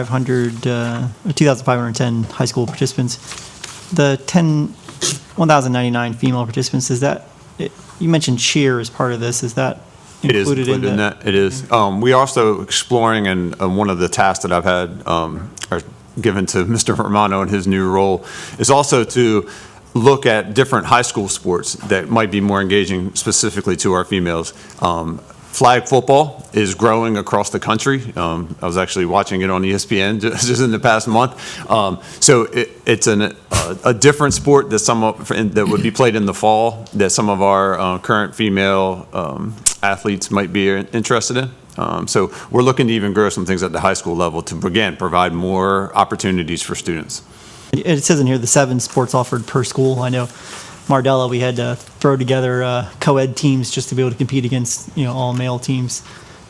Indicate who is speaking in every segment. Speaker 1: 2,500, uh, 2,510 high school participants. The 10, 1,099 female participants, is that, it- you mentioned cheer as part of this, is that
Speaker 2: It is
Speaker 1: included in that?
Speaker 2: that. It is. Um, we are also exploring, and uh, one of the tasks that I've had um, or given to Mr. Romano in his new role is also to look at different high school sports that might be more engaging specifically to our females. Um, flag football is growing across the country. Um, I was actually watching it on E ESPN just in the past month. Um, so it, it's an, uh, a different sport that some of, that would be played in the fall that some of our uh, current female um, athletes might be interested in. Um, so we're looking to even grow some things at the high school level to again provide more opportunities for students.
Speaker 1: It it says in here the seven sports offered per school. I know Mardella, we had to throw together uh, co-ed teams just to be able to compete against you know all male teams,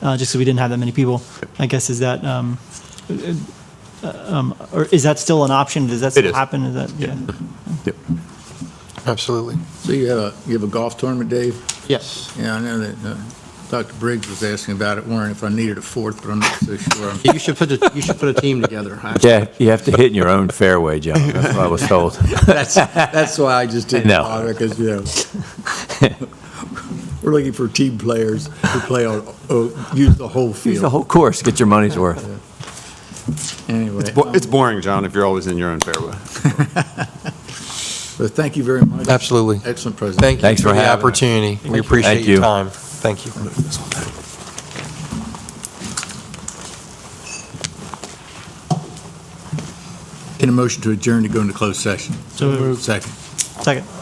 Speaker 1: uh, just so we didn't have that many people. I guess is that um, uh, um, or is that still an option? Does that
Speaker 2: It
Speaker 1: still
Speaker 2: is.
Speaker 1: happen? Is that yeah?
Speaker 2: Yep.
Speaker 3: Absolutely.
Speaker 4: So you have a, you have a golf tournament, Dave?
Speaker 3: Yes.
Speaker 4: Yeah, I know that uh, Dr. Briggs was asking about it, wondering if I needed a fourth, but I'm not so sure.
Speaker 3: You should put a, you should put a team together. I-
Speaker 5: Yeah, you have to hit in your own fairway, John. That's what I was told.
Speaker 4: That's, that's why I just didn't
Speaker 5: No.
Speaker 4: bother, because, you know, we're looking for team players who play on, oh, use the whole
Speaker 5: Use the
Speaker 4: field.
Speaker 5: whole course, get your money's worth.
Speaker 4: Anyway, um,
Speaker 2: Bo- It's boring, John, if you're always in your own fairway.
Speaker 4: but thank you very much.
Speaker 3: Absolutely.
Speaker 4: Excellent presentation.
Speaker 3: Thank you
Speaker 5: Thanks
Speaker 3: for
Speaker 5: for
Speaker 3: the
Speaker 5: having us.
Speaker 3: opportunity. We
Speaker 5: Thank you.
Speaker 3: appreciate
Speaker 5: Thank
Speaker 3: your
Speaker 5: you.
Speaker 3: time. Thank you.
Speaker 4: Entertained a motion to adjourn to go into closed session.
Speaker 1: So moved.
Speaker 4: Second.
Speaker 1: Second.